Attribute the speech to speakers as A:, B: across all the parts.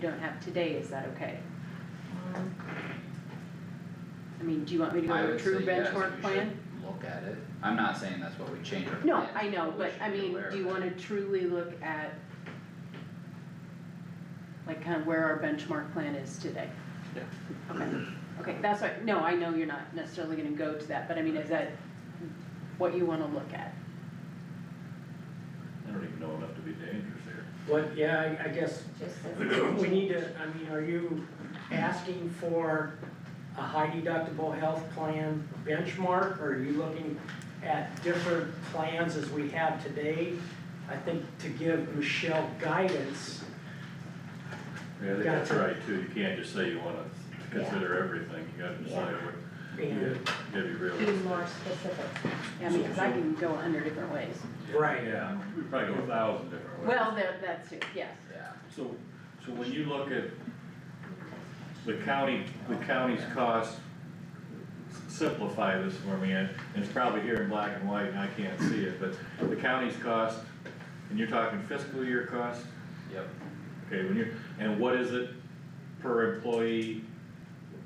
A: don't have today, is that okay? I mean, do you want me to go
B: I
A: to a
B: would say
A: true
B: yes,
A: benchmark plan?
B: we should look at it, I'm not saying that's what we change our plan.
A: No, I know,
B: we
A: but
B: should
A: I
B: be
A: mean,
B: aware
A: do you
B: of it.
A: wanna truly look at like kind of where our benchmark plan is today?
C: Yeah.
A: Okay, okay, that's right, no, I know you're not necessarily gonna go to that, but I mean, is that what you wanna look at?
D: I don't even know enough to be dangerous here.
E: What, yeah, I, I guess,
F: Just
E: we need to, I mean, are you asking for a high deductible health plan benchmark? Or are you looking at different plans as we have today? I think to give Michelle guidance,
D: Yeah, I think that's
E: Gotcha.
D: right too, you can't just say you wanna consider everything, you gotta decide what, you
E: and,
D: gotta- you gotta be
F: be
D: realistic.
F: more specific.
A: I mean, cause I can go a hundred different ways.
E: right,
D: Yeah, we probably go a thousand different ways.
A: Well, that, that's it, yes.
B: Yeah,
D: So, so when you look at the county, the county's cost, simplify this for me, and it's probably here in black and white and I can't see it, but the county's cost, and you're talking fiscal year cost,
B: yep,
D: okay, when you're, and what is it per employee,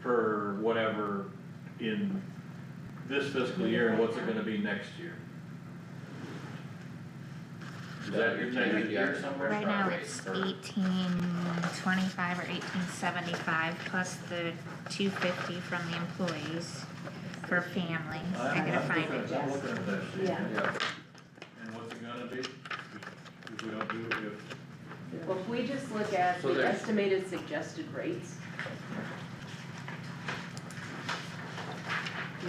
D: per whatever in this fiscal year, and what's it gonna be next year? Is that your next year somewhere?
G: Right now,
B: Rate
G: it's
B: for-
G: eighteen twenty-five or eighteen seventy-five plus the two fifty from the employees for families. I
D: I'm-
G: gotta
D: I'm
G: find
D: looking
G: it,
D: at- I'm
G: yes.
D: looking at that sheet.
A: Yeah.
B: yep,
D: And what's it gonna be? If we don't do it, if,
A: Well, if we just look at
B: So
A: the
B: there's-
A: estimated suggested rates.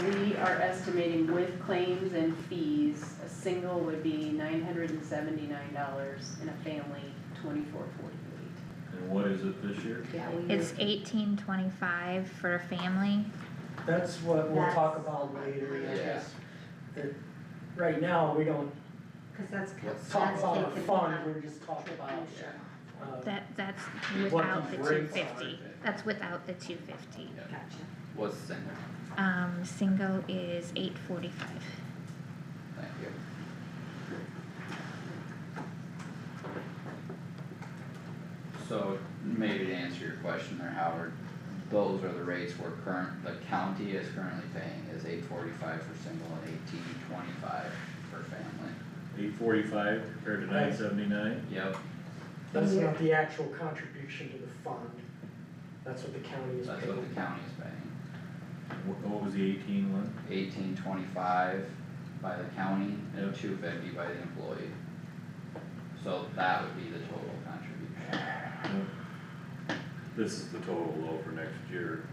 A: We are estimating with claims and fees, a single would be nine hundred and seventy-nine dollars and a family twenty-four forty-eight.
D: and what is it this year?
F: Yeah, we.
G: It's eighteen twenty-five for a family,
E: that's what we'll talk
F: That's-
E: about later, I
B: Yeah.
E: guess. That- Right now, we don't
F: Cause that's.
B: Let's
E: talk
F: that's
E: about a
F: taken
E: fund,
F: out.
E: we're just talking about,
B: yeah,
E: uh,
G: that, that's
E: What
G: without the
E: the
G: two
E: rates
G: fifty,
B: are.
G: that's without the two fifty.
F: Gotcha.
B: what's the center,
G: Um, single is eight forty-five.
B: thank you, so maybe to answer your question there, Howard, those are the rates we're current, the county is currently paying is eight forty-five for single and eighteen twenty-five for family,
D: Eight forty-five compared to
E: Right.
D: nine seventy-nine?
B: yep,
E: that's not the actual contribution to the fund. That's what the county is
B: that's
E: paying.
B: what the county is paying,
D: What, what was the eighteen one?
B: eighteen twenty-five by the county and
D: Yeah.
B: two fifty by the employee. So that would be the total contribution,
D: This is the total though for next year,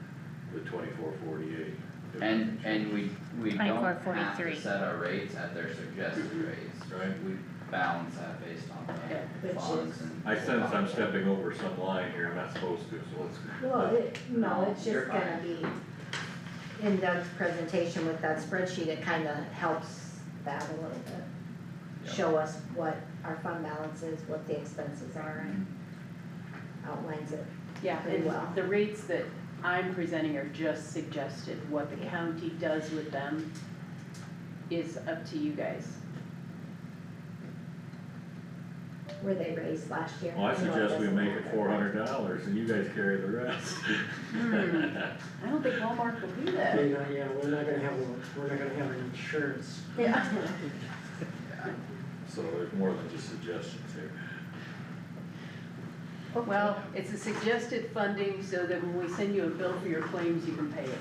D: the twenty-four forty-eight.
B: and, and we, we don't have to
G: 24.43.
B: set our rates at their suggested rates,
D: Mm-hmm. Right.
B: we balance that based on
A: Yeah,
B: the
F: which
B: funds
F: is-
B: and.
D: I sense I'm stepping over some line here, I'm not supposed to, so let's.
F: Well, it, no, it's
B: You're
F: just gonna be, in Doug's presentation with that spreadsheet, it kinda helps that a little bit.
B: Yep.
F: Show us what our fund balance is, what the expenses are, and outlines it.
A: Yeah,
F: Pretty
A: and
F: well.
A: the rates that I'm presenting are just suggested, what the county does with them is up to you guys.
F: Were they raised last year?
D: Well, I
F: You know,
D: suggest we
F: doesn't
D: make it
F: matter.
D: four hundred dollars and you guys carry the rest.
A: I don't think Walmart will do that.
E: We're not- yeah, we're not gonna have, a- we're not gonna have an insurance.
F: Yeah.
B: Yeah,
D: So there's more than just suggestions here.
A: Well, it's a suggested funding so that when we send you a bill for your claims, you can pay it.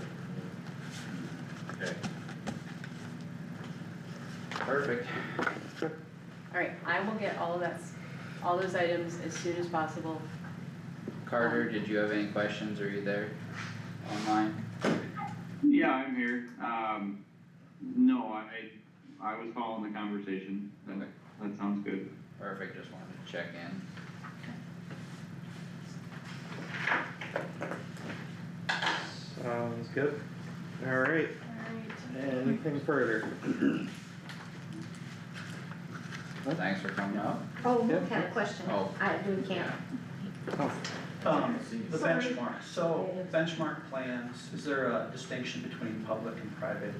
D: Okay,
B: perfect,
A: All right, I will get all of that, s- all those items as soon as possible.
B: Carter, did you have any questions, are you there online?
H: Yeah, I'm here. Um, no, I, I was following the conversation. That,
B: Okay.
H: that sounds good.
B: Perfect, just wanted to check in.
C: Sounds good. Alright, anything further?
B: Thanks for coming up.
F: Oh,
C: Yep.
F: we had a question,
B: Oh.
F: I, we can't,
I: Um, the
B: Sorry.
I: benchmark, so benchmark plans, is there a distinction between public and private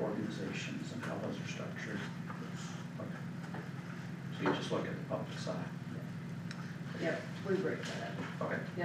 I: organizations and how those are structured? Okay. So you just look at the public side,
A: Yep, we break that up.
I: okay.